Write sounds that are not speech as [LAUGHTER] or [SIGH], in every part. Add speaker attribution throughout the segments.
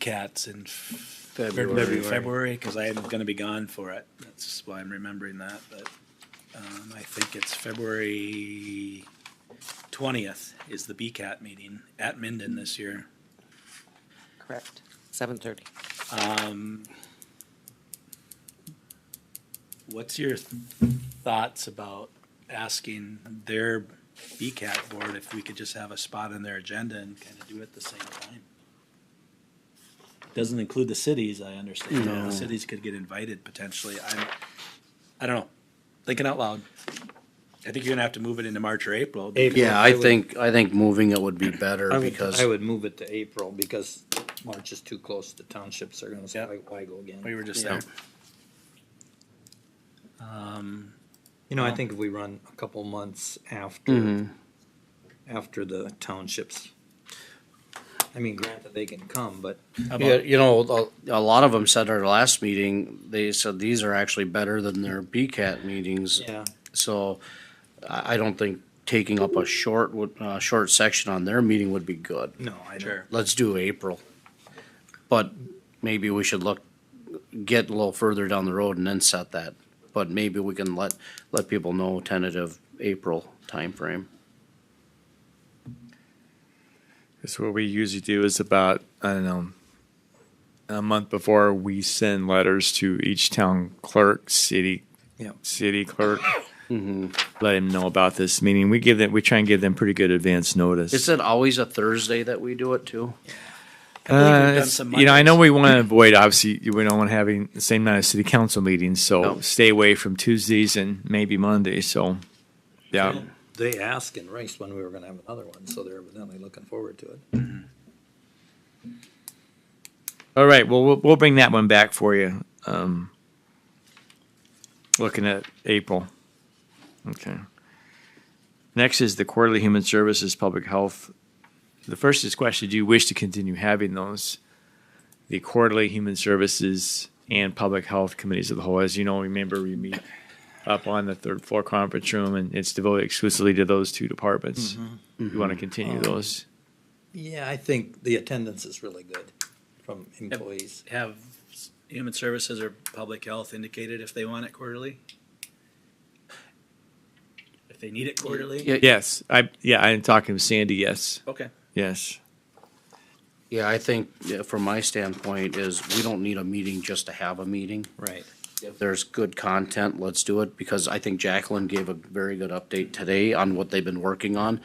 Speaker 1: cats in f-
Speaker 2: February.
Speaker 1: February, because I am going to be gone for it. That's why I'm remembering that, but um, I think it's February twentieth is the BCAT meeting at Minden this year.
Speaker 3: Correct. Seven thirty.
Speaker 1: Um, What's your th- thoughts about asking their BCAT board if we could just have a spot on their agenda and kind of do it at the same time? Doesn't include the cities, I understand.
Speaker 2: No.
Speaker 1: The cities could get invited potentially. I'm, I don't know, thinking out loud. I think you're gonna have to move it into March or April. because-
Speaker 2: April.
Speaker 4: Yeah, I think, I think moving it would be better
Speaker 5: I would,
Speaker 4: because,
Speaker 5: I would move it to April because March is too close. The townships are gonna say,
Speaker 1: Yeah.
Speaker 5: why, why go again?
Speaker 1: We were just there.
Speaker 4: Yeah.
Speaker 1: Um,
Speaker 5: You know, I think if we run a couple months after,
Speaker 4: Mm-hmm.
Speaker 5: after the townships. I mean, granted, they can come, but
Speaker 1: how
Speaker 4: Yeah,
Speaker 1: about,
Speaker 4: you know, a, a lot of them said at our last meeting, they said these are actually better than their BCAT meetings.
Speaker 5: yeah,
Speaker 4: So I, I don't think taking up a short, would- uh, short section on their meeting would be good.
Speaker 5: no, I don't.
Speaker 1: sure,
Speaker 4: Let's do April. But maybe we should look, get a little further down the road and then set that. But maybe we can let, let people know tentative April timeframe.
Speaker 6: So what we usually do is about I don't know a month before we send letters to each town clerk, city
Speaker 5: Yeah.
Speaker 6: city clerk,
Speaker 4: Mm-hmm.
Speaker 6: let him know about this meeting. We give them we try and give them pretty good advance notice.
Speaker 4: Is it always a Thursday that we do it too?
Speaker 1: believe we've
Speaker 6: Uh,
Speaker 1: done
Speaker 6: it's-
Speaker 1: some
Speaker 6: you know, I know
Speaker 1: Mondays.
Speaker 6: we want to avoid obviously we don't want to having the same night as city council meetings, so
Speaker 4: No.
Speaker 6: stay away from Tuesdays and maybe Mondays. So yeah.
Speaker 5: They asked in Rice when we were gonna have another one, so they're evidently looking forward to it.
Speaker 6: All right. Well, we'll we'll bring that one back for you. Um, looking at April. Okay. Next is the quarterly human services public health. The first is question: Do you wish to continue having those? The quarterly human services and public health committees of the whole. As you know, remember we meet up on the third floor conference room, and it's devoted exclusively to those two departments. You want to continue those?
Speaker 5: Yeah, I think the attendance is really good from employees.
Speaker 1: have s- human services or public health indicated if they want it quarterly? If they need it quarterly?
Speaker 4: Yeah,
Speaker 6: Yes. I yeah. I'm talking with Sandy. Yes.
Speaker 1: Okay.
Speaker 6: Yes.
Speaker 4: Yeah, I think yeah, from my standpoint is we don't need a meeting just to have a meeting.
Speaker 5: Right.
Speaker 4: If there's good content, let's do it because I think Jacqueline gave a very good update today on what they've been working on.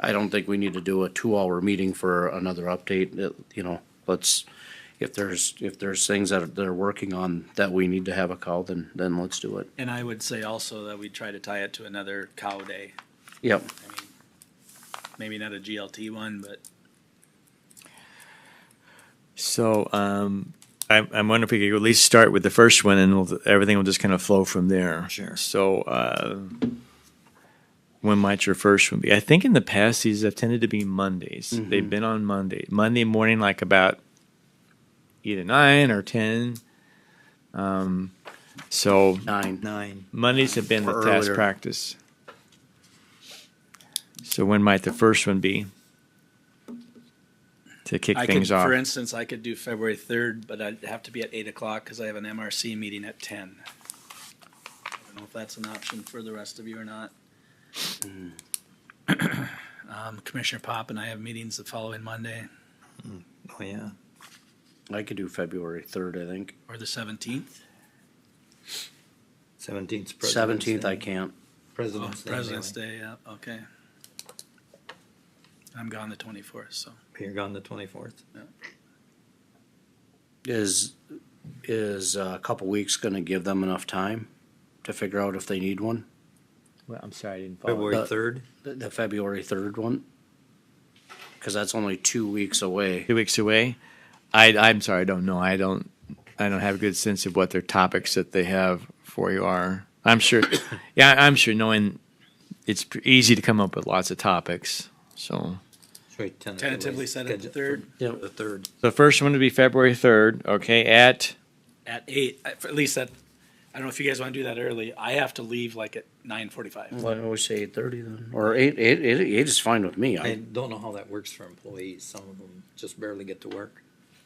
Speaker 4: I don't think we need to do a two-hour meeting for another update. uh, You know, let's, if there's, if there's things that they're working on that we need to have a call, then, then let's do it.
Speaker 1: And I would say also that we try to tie it to another cow day.
Speaker 4: Yep.
Speaker 1: I mean, maybe not a GLT one, but
Speaker 6: So um, I'm, I'm wondering if we could at least start with the first one, and we'll, everything will just kind of flow from there.
Speaker 5: Sure.
Speaker 6: So uh, when might your first one be? I think in the past these have tended to be Mondays. They've been on Monday, Monday morning, like about either nine or ten. Um, so
Speaker 4: Nine.
Speaker 5: Nine.
Speaker 6: Mondays have been the
Speaker 4: Or
Speaker 6: past
Speaker 4: earlier.
Speaker 6: practice. So when might the first one be? To kick
Speaker 1: I could,
Speaker 6: things off.
Speaker 1: for instance, I could do February third, but I'd have to be at eight o'clock because I have an MRC meeting at ten. I don't know if that's an option for the rest of you or not.
Speaker 6: Hmm.
Speaker 1: [CLEARS THROAT] Um, Commissioner Pop and I have meetings the following Monday
Speaker 5: Oh, yeah.
Speaker 4: I could do February third, I think.
Speaker 1: or the seventeenth.
Speaker 5: Seventeenth.
Speaker 4: Seventeenth, I can't.
Speaker 1: Oh,
Speaker 5: President's Day.
Speaker 1: President's
Speaker 5: anyway.
Speaker 1: Day, yeah, okay. I'm gone the twenty-fourth, so.
Speaker 5: You're gone the twenty-fourth.
Speaker 4: Is, is uh, a couple weeks gonna give them enough time to figure out if they need one?
Speaker 6: Well, I'm sorry, I didn't follow.
Speaker 5: February
Speaker 4: the-
Speaker 5: third.
Speaker 4: The, the February third one? Cause that's only two weeks away.
Speaker 6: two weeks away. I, I'm sorry, I don't know. I don't, I don't have a good sense of what their topics that they have for you are. I'm sure, [COUGHS] yeah, I'm sure. Knowing it's pr- easy to come up with lots of topics. So
Speaker 5: Should we tentatively?
Speaker 1: Tentatively set it the
Speaker 5: schedule-
Speaker 1: third
Speaker 4: Yep.
Speaker 5: The third.
Speaker 6: the first one would be February third. Okay, at
Speaker 1: at eight, I- for at least that, I don't know if you guys wanna do that early, I have to leave like at nine forty-five.
Speaker 4: Why don't we say eight thirty then? Or eight, eight, eight, eight is fine with me.
Speaker 5: I
Speaker 4: I,
Speaker 5: don't know how that works for employees. Some of them just barely get to work.